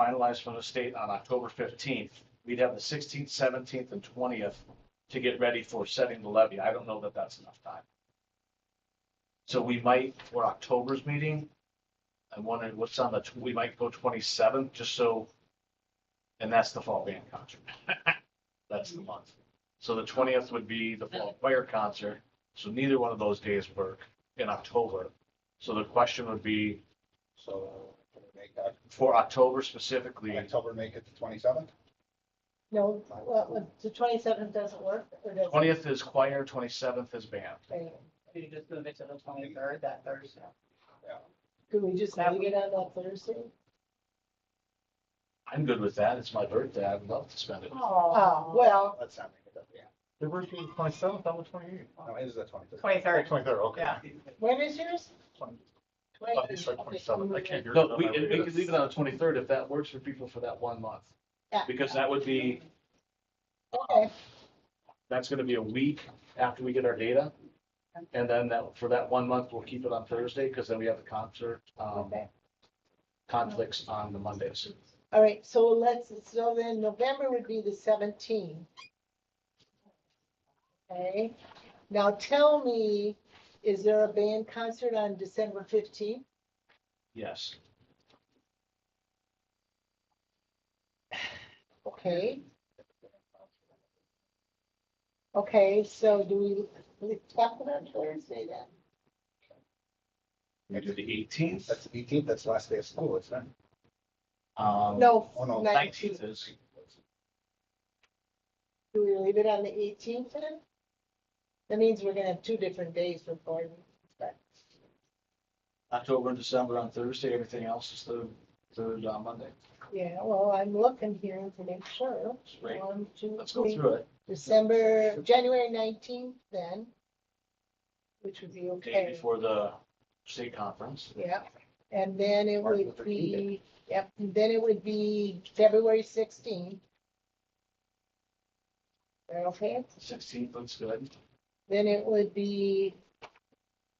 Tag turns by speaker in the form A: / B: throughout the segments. A: finalized from the state on October fifteenth, we'd have the sixteenth, seventeenth, and twentieth to get ready for setting the levy. I don't know that that's enough time. So we might, for October's meeting, I'm wondering what's on the, tw- we might go twenty-seventh, just so, and that's the fall band concert. That's the month. So the twentieth would be the fall choir concert, so neither one of those days work in October. So the question would be,
B: So make that,
A: for October specifically,
B: October, make it the twenty-seventh?
C: No, well, well, the twenty-seventh doesn't work, or does it?
A: twentieth is choir, twenty-seventh is band.
D: We just move it to the twenty-third, that Thursday.
C: Could we just have it on that Thursday?
A: I'm good with that. It's my birthday. I'd love to spend it.
C: Oh, well,
B: Let's not make it up, yeah.
A: Your birthday is twenty-seventh, I'm the twenty-eighth.
B: No, it is the twenty-third.
D: Twenty-third,
B: Twenty-third,
D: yeah.
C: when is yours?
E: Oh, it's like 27th. I can't hear.
A: No,
E: it.
A: we, we could leave it on the twenty-third if that works for people for that one month.
C: Yeah.
A: Because that would be,
C: Okay,
A: that's gonna be a week after we get our data. And then that, for that one month, we'll keep it on Thursday, because then we have the concert, um,
C: okay.
A: conflicts on the Mondays.
C: All right, so let's, so then November would be the seventeenth. Okay, now tell me, is there a band concert on December fifteenth?
A: Yes.
C: Okay. Okay, so do we, we talk about Thursday then?
A: We do the eighteenth,
B: That's the eighteenth, that's the last day of school, it's not.
A: um,
C: No,
B: Oh, no.
A: nineteenth is,
C: Do we leave it on the eighteenth then? That means we're gonna have two different days for Gordon.
A: October and December on Thursday, everything else is the, third uh, Monday.
C: Yeah, well, I'm looking here to make sure.
A: Right.
C: One, two,
A: Let's go
C: three.
A: through it.
C: December, January nineteenth then. Which would be
A: Day
C: okay,
A: before the state conference.
C: yeah. And then it
B: Martin
C: would
B: Luther King Day.
C: be, yep, and then it would be February sixteenth. Okay,
A: Sixteenth looks good.
C: then it would be,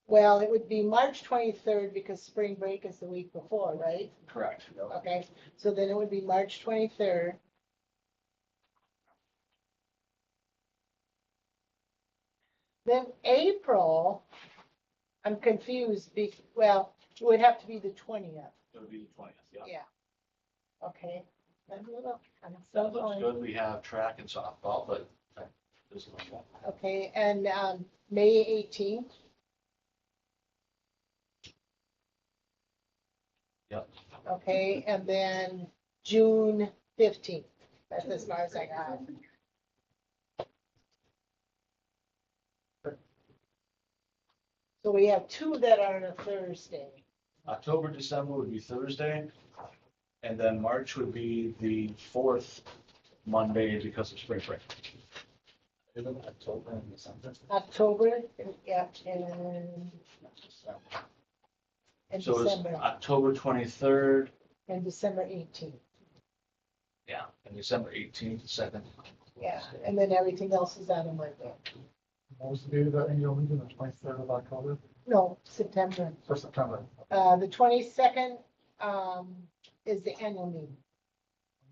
C: well, it would be March twenty-third because spring break is the week before, right?
A: Correct.
C: Okay, so then it would be March twenty-third. Then April, I'm confused, be, well, it would have to be the twentieth,
A: It would be the twentieth, yeah.
C: yeah. Okay. I'm a little- I'm so
A: That looks
C: going.
A: good. We have track and softball, but that is normal.
C: Okay, and, um, May eighteenth,
A: Yep.
C: okay, and then June fifteenth, that's as far as I got. So we have two that are on a Thursday,
A: October, December would be Thursday. And then March would be the fourth Monday because of spring break.
B: Isn't October and December?
C: October, yeah, and,
B: December.
C: and
A: So it's
C: December,
A: October twenty-third,
C: and December eighteenth,
A: yeah, and December eighteenth, second.
C: yeah, and then everything else is on a Monday.
E: Most of you that annual meeting, the twenty-third of October,
C: No, September,
E: for September,
C: uh, the twenty-second, um, is the annual meeting,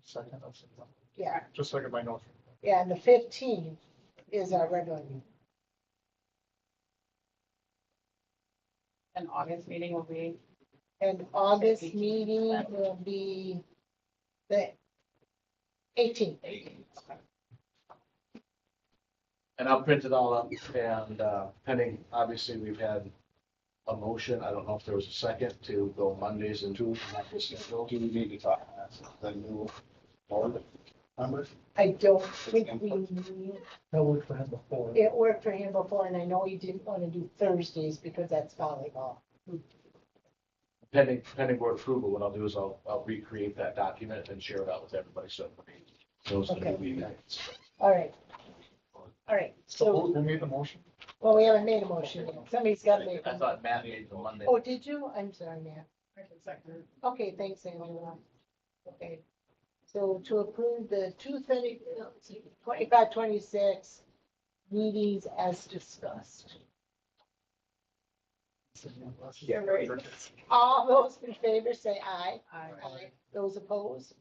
E: second of September,
C: yeah.
E: just so I get my notes.
C: Yeah, and the fifteenth is our regular meeting.
D: And August meeting will be,
C: And August
D: 18th.
C: meeting will be the eighteenth.
A: And I'll print it all up and uh, pending, obviously, we've had a motion. I don't know if there was a second to go Mondays and
B: Do we do we need to talk about the new board members?
C: I don't think we, need-
E: That worked for him before.
C: it worked for him before, and I know he didn't want to do Thursdays because that's volleyball.
A: pending, pending board approval, what I'll do is I'll, I'll recreate that document and share it out with everybody. So everybody knows the new
C: Okay.
A: meeting minutes.
C: All right. All right,
E: So
C: so,
E: who made the motion?
C: well, we haven't made a motion yet. Somebody's got to make
A: I
C: one.
A: thought Matt made the Monday.
C: Oh, did you? I'm sorry, Matt.
D: sector.
C: Okay, thanks, Angela. Okay, so to approve the two thirty, twenty-five, twenty-six meetings as discussed.
E: Send me a message.
C: All those in favor say aye.
D: I-
C: Aye. Those opposed,